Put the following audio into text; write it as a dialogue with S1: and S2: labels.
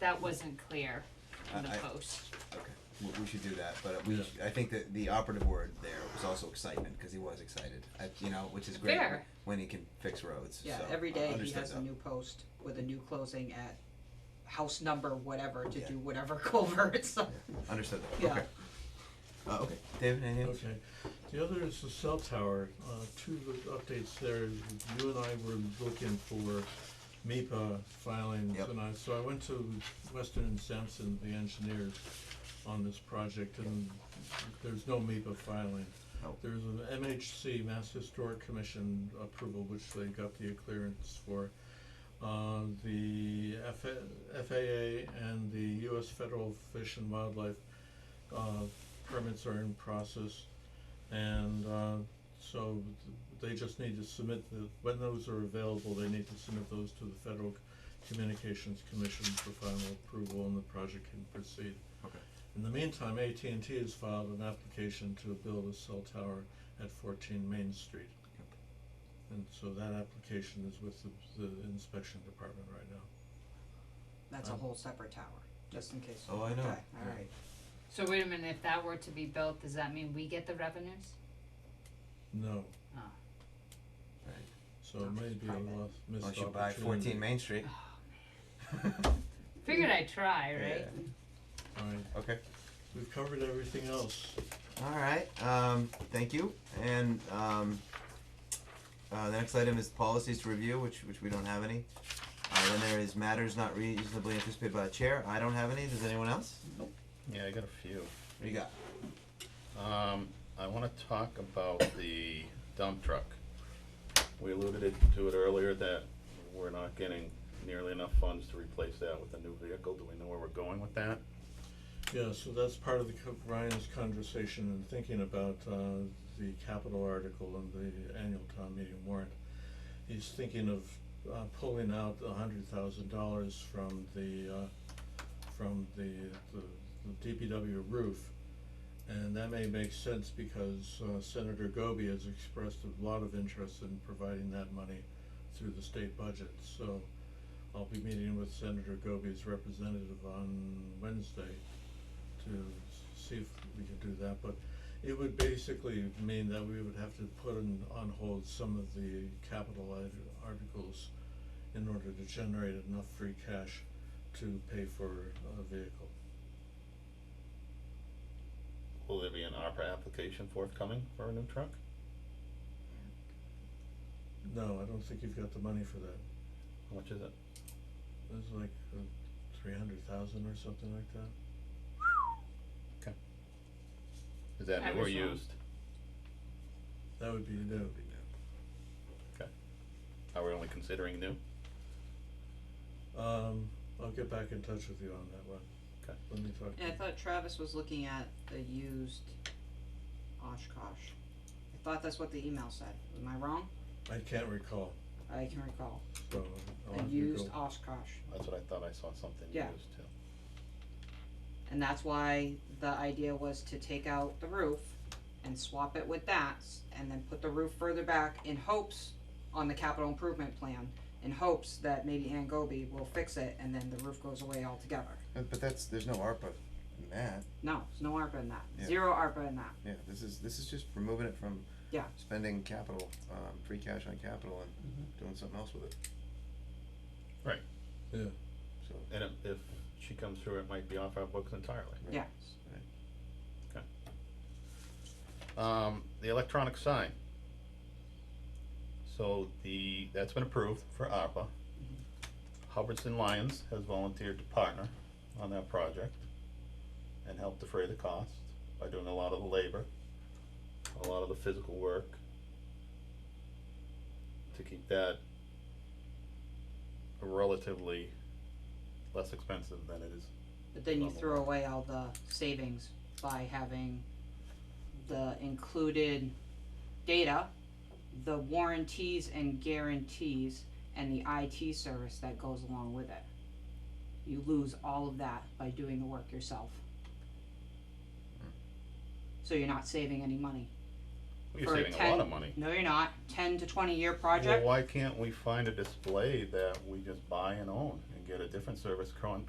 S1: that wasn't clear in the
S2: I- I-
S1: post.
S2: Okay, we, we should do that, but we,
S3: Yeah.
S2: sh- I think that the operative word there was also excitement, cause he was excited, I, you know, which is great wh-
S1: Fair.
S2: when he can fix roads, so.
S4: Yeah, every
S2: I
S4: day he
S2: understood
S4: has a
S2: that.
S4: new post with a new closing at house number whatever to
S2: Yeah.
S4: do whatever culverts.
S2: Understood that,
S4: Yeah.
S2: okay. Uh, okay, David, anything else?
S3: Okay, the other is the cell tower, uh, two of the updates there, is you and I were looking for E MEPA filings,
S2: Yep.
S3: and I, so I went to Western and Sampson, the engineers, on this project, and there's no MEPA filing.
S2: Oh.
S3: There's an MHC, Mass Historic Commission approval, which they got the clearance for. Uh, the FA- FAA and the US Federal Fish and Wildlife, uh, permits are in process. And, uh, so th- they just need to submit the, when those are available, they need to submit those to the Federal Communications Commission for final approval and the project can proceed.
S2: Okay.
S3: In the meantime, AT&T has filed an application to build a cell tower at fourteen Main Street.
S2: Yep.
S3: And so that application is with the, the inspection department right now.
S4: That's a
S3: Um,
S4: whole separate tower, just in case.
S2: Oh, I know.
S4: Okay,
S2: Yeah.
S4: alright.
S1: So wait a minute, if that were to be built, does that mean we get the revenues?
S3: No,
S1: Oh.
S2: Right.
S3: so
S4: No,
S3: it may
S4: it's
S3: be a
S4: private.
S3: lost, missed
S2: Unless
S3: opportunity.
S2: you buy fourteen Main Street.
S1: Figured I'd try, right?
S2: Yeah.
S3: Alright,
S2: Okay,
S3: we've covered everything else.
S2: alright, um, thank you, and, um, uh, the next item is policies to review, which, which we don't have any. Uh, then there is matters not reasonably anticipated by the chair, I don't have any, does anyone else?
S5: Yeah, I got a few.
S2: What do you got?
S5: Um, I wanna talk about the dump truck. We alluded it- to it earlier that we're not getting nearly enough funds to replace that with a new vehicle. Do we know where we're going with that?
S3: Yeah, so that's part of the co- Ryan's conversation and thinking about uh the capital article and the annual town meeting warrant. He's thinking of uh pulling out a hundred thousand dollars from the uh from the the the DPW roof. And that may make sense because uh Senator Goby has expressed a lot of interest in providing that money through the state budget, so I'll be meeting with Senator Goby's representative on Wednesday to s- see if we could do that, but it would basically mean that we would have to put in, on hold some of the capital art- articles in order to generate enough free cash to pay for a vehicle.
S5: Will there be an ARPA application forthcoming for a new truck?
S3: No, I don't think you've got the money for that.
S5: How much is it?
S3: It's like uh, three hundred thousand or something like that.
S5: Is that
S1: I
S5: new or
S1: was wrong.
S5: used?
S3: That would be new.
S5: Are we only considering new?
S3: Um, I'll get back in touch with you on that one.
S5: Okay.
S3: Let me talk to
S4: Yeah, I
S3: you.
S4: thought Travis was looking at the used Oshkosh. I thought that's what the email said. Am I wrong?
S3: I can't recall,
S4: I can recall.
S3: so
S2: Oh,
S3: I'll
S4: A
S3: have to go.
S4: used Oshkosh.
S5: That's what I thought I saw something
S4: Yeah.
S5: used too.
S4: And that's why the idea was to take out the roof and swap it with that s- and then put the roof further back in hopes on the capital improvement plan, in hopes that maybe Ann Goby will fix it and then the roof goes away altogether.
S2: But, but that's, there's no ARPA in that.
S4: No, there's no ARPA in that.
S2: Yeah.
S4: Zero ARPA in that.
S2: Yeah, this is, this is just removing it from.
S4: Yeah.
S2: Spending capital, um, free cash on capital and doing something else with it.
S5: Right.
S3: Yeah.
S2: So,
S5: And if, if she comes through, it might be off our books entirely.
S4: Yeah.
S5: Um, the electronic sign. So the, that's been approved for ARPA. Hubbardson Lyons has volunteered to partner on that project and help defray the cost by doing a lot of the labor, a lot of the physical work to keep that relatively less expensive than it is.
S4: But then you
S5: Level
S4: throw away all the savings by having the included data, the warranties and guarantees, and the IT service that goes along with it. You lose all of that by doing the work yourself.
S5: Hmm.
S4: So you're not saving any money.
S5: You're
S4: For
S5: saving a
S4: 10
S5: lot of money.
S4: No, you're not. Ten to twenty year
S5: Well,
S4: project.
S5: why can't we find a display that we just buy and own and get a different service con-